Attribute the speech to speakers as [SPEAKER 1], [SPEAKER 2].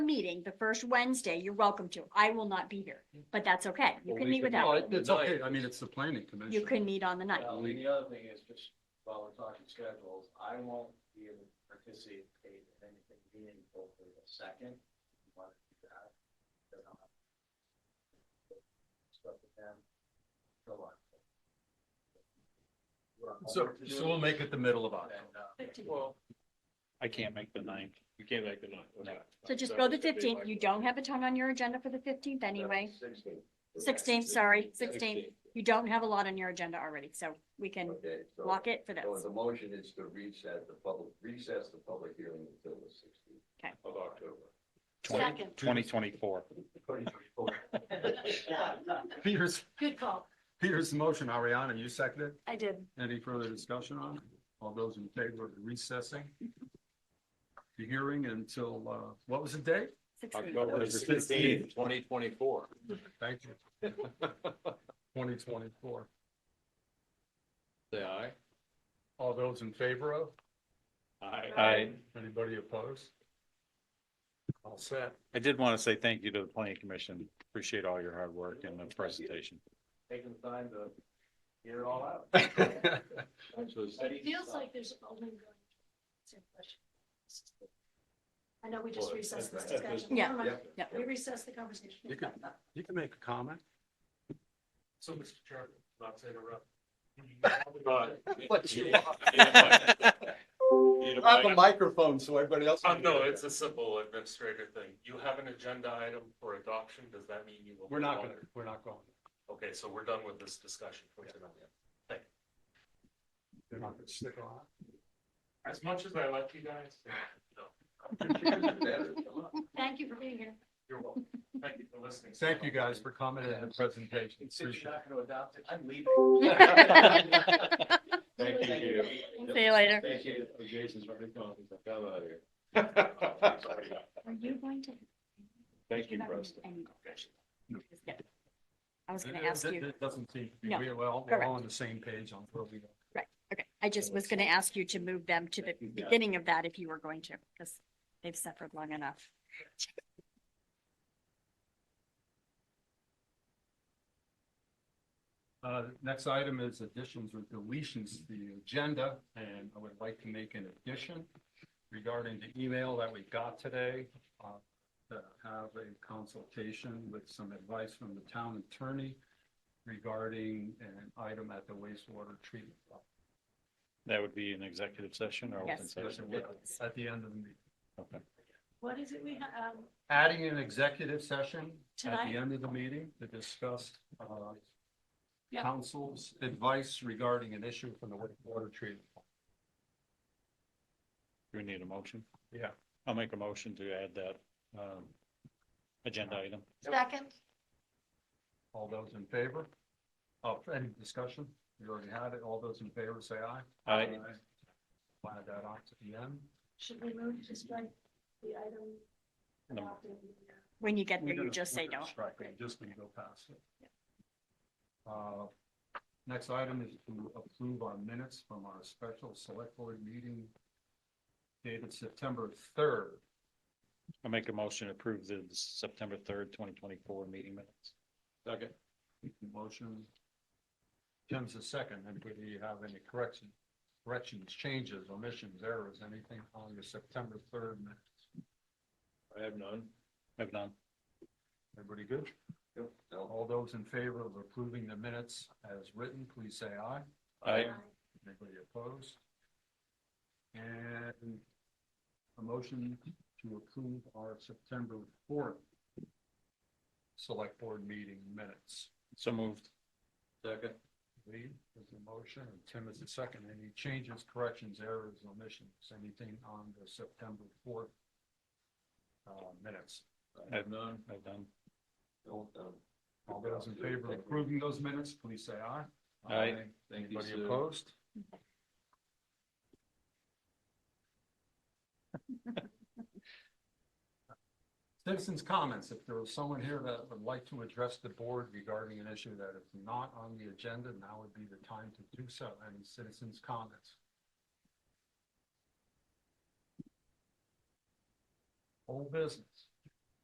[SPEAKER 1] meeting, the first Wednesday, you're welcome to. I will not be here, but that's okay. You
[SPEAKER 2] Well,
[SPEAKER 1] can
[SPEAKER 2] we
[SPEAKER 1] meet
[SPEAKER 2] could-
[SPEAKER 1] without, me.
[SPEAKER 2] no,
[SPEAKER 3] It's okay, I mean, it's the planning commission.
[SPEAKER 1] you can meet on the ninth.
[SPEAKER 2] Well, and the other thing is just while we're talking schedules, I won't be able to participate in anything meaningful for the second. If you want to do that, then I'll have Stuff with them. So on. We're on
[SPEAKER 3] So,
[SPEAKER 2] hold to do
[SPEAKER 3] so we'll
[SPEAKER 2] it,
[SPEAKER 3] make it the middle of October.
[SPEAKER 2] and, uh,
[SPEAKER 4] Well, I can't make the ninth. You can't make the ninth. okay.
[SPEAKER 1] So just go the fifteenth. You don't have a ton on your agenda for the fifteenth anyway. Sixteenth, sorry, sixteenth. You don't have a lot on your agenda already, so we can
[SPEAKER 5] Okay,
[SPEAKER 2] uh,
[SPEAKER 5] so,
[SPEAKER 1] block it for
[SPEAKER 5] so
[SPEAKER 1] those.
[SPEAKER 5] the motion is to reset the public, recess the public hearing until the sixteenth.
[SPEAKER 1] Okay.
[SPEAKER 5] Of October.
[SPEAKER 6] Second.
[SPEAKER 4] Twenty twenty-four.
[SPEAKER 3] Peter's,
[SPEAKER 6] Good call.
[SPEAKER 3] Peter's motion, Ariana, you seconded.
[SPEAKER 6] I did.
[SPEAKER 3] Any further discussion on it? All those in favor of recessing? The hearing until, uh, what was the date?
[SPEAKER 1] Sixteenth.
[SPEAKER 4] October sixteenth, twenty twenty-four.
[SPEAKER 3] Thank you. Twenty twenty-four.
[SPEAKER 4] Say aye.
[SPEAKER 3] All those in favor of?
[SPEAKER 4] Aye.
[SPEAKER 3] Anybody opposed? All set.
[SPEAKER 4] I did want to say thank you to the planning commission. Appreciate all your hard work and the presentation.
[SPEAKER 2] Taking the time to get it all out.
[SPEAKER 6] It feels like there's only one. same question. I know we just recessed this discussion.
[SPEAKER 1] Yeah.
[SPEAKER 6] Never mind.
[SPEAKER 1] Yeah.
[SPEAKER 6] We recessed the conversation.
[SPEAKER 3] You can, you can make a comment.
[SPEAKER 7] So, Mr. Chairman, not to interrupt.
[SPEAKER 3] But you-
[SPEAKER 7] Need a
[SPEAKER 3] I have a
[SPEAKER 7] mic?
[SPEAKER 3] microphone, so everybody else.
[SPEAKER 4] Oh,
[SPEAKER 7] Uh,
[SPEAKER 3] can
[SPEAKER 7] no,
[SPEAKER 3] hear
[SPEAKER 7] it's a simple administrator thing. You have an agenda item for adoption. Does that mean you will?
[SPEAKER 3] We're not gonna, we're not going.
[SPEAKER 7] Okay, so we're done with this discussion for tonight.
[SPEAKER 3] They're not gonna stick around.
[SPEAKER 7] As much as I like you guys, no,
[SPEAKER 6] Thank you for being here.
[SPEAKER 7] you're welcome. Thank you for listening.
[SPEAKER 3] Thank you guys for coming and the presentation.
[SPEAKER 2] Since
[SPEAKER 3] Appreciate
[SPEAKER 2] you're
[SPEAKER 3] it.
[SPEAKER 2] not gonna adopt it, I'm leaving.
[SPEAKER 3] Thank
[SPEAKER 2] you.
[SPEAKER 1] See you later.
[SPEAKER 2] Thank you. Jason's already gone.
[SPEAKER 5] Come out here.
[SPEAKER 1] Are you going to?
[SPEAKER 5] Thank
[SPEAKER 1] you, Preston. I was gonna ask
[SPEAKER 3] It-
[SPEAKER 1] you.
[SPEAKER 3] It doesn't seem to be,
[SPEAKER 1] No.
[SPEAKER 3] we're all, we're all on the same page on where we are.
[SPEAKER 1] Okay, I just was gonna ask you to move them to the beginning of that if you were going to, because they've suffered long enough.
[SPEAKER 3] Uh, next item is additions or deletions to the agenda, and I would like to make an addition regarding the email that we got today, uh, to have a consultation with some advice from the town attorney regarding an item at the wastewater treatment. plant.
[SPEAKER 4] That would be an executive session or? open
[SPEAKER 1] Yes.
[SPEAKER 3] Discussion
[SPEAKER 4] session?
[SPEAKER 3] with- At the end of the meeting,
[SPEAKER 4] Okay.
[SPEAKER 6] What is it we have, um,
[SPEAKER 3] adding an executive session at
[SPEAKER 6] Tonight?
[SPEAKER 3] the end of the meeting to discuss, uh,
[SPEAKER 6] Yep.
[SPEAKER 3] council's advice regarding an issue from the wastewater treatment. plant.
[SPEAKER 4] Do we need a motion?
[SPEAKER 3] Yeah.
[SPEAKER 4] I'll make a motion to add that, um, agenda item.
[SPEAKER 6] second?
[SPEAKER 3] All those in favor? Oh, any discussion? We already had it. All those in favor, say aye.
[SPEAKER 4] Aye.
[SPEAKER 3] Add that on to the end.
[SPEAKER 6] Should we move to strike the item?
[SPEAKER 4] No.
[SPEAKER 6] adopted? uh,
[SPEAKER 1] When you get
[SPEAKER 3] We're
[SPEAKER 1] there, you
[SPEAKER 3] gonna-
[SPEAKER 1] just say
[SPEAKER 3] we're gonna
[SPEAKER 1] don't.
[SPEAKER 3] Strike it, just gonna go past it. Uh, Next item is to approve our minutes from our special select board meeting dated September third.
[SPEAKER 4] I'll make a motion to approve the September third, twenty twenty-four meeting minutes.
[SPEAKER 3] Second. Motion. Tim's the second. Anybody have any correction, corrections, changes, omissions, errors, anything on your September third minutes?
[SPEAKER 5] I have none.
[SPEAKER 4] I've done.
[SPEAKER 3] Everybody good? All those in favor of approving the minutes as written, please say aye.
[SPEAKER 4] Aye.
[SPEAKER 3] Anybody opposed? And a motion to approve our September fourth select board meeting minutes.
[SPEAKER 4] So moved.
[SPEAKER 5] Second.
[SPEAKER 3] Lee is the motion, and Tim is the second. Any changes, corrections, errors, omissions, anything on the September fourth uh, minutes?
[SPEAKER 5] I have none.
[SPEAKER 4] I've done.
[SPEAKER 5] Don't, um,
[SPEAKER 3] All those in favor of approving those minutes, please say aye.
[SPEAKER 4] Aye.
[SPEAKER 5] Thank you,
[SPEAKER 3] Anybody
[SPEAKER 5] Sue.
[SPEAKER 3] opposed? Citizens' comments, if there was someone here that would like to address the board regarding an issue that is not on the agenda, now would be the time to do so, any citizens' comments. Whole business.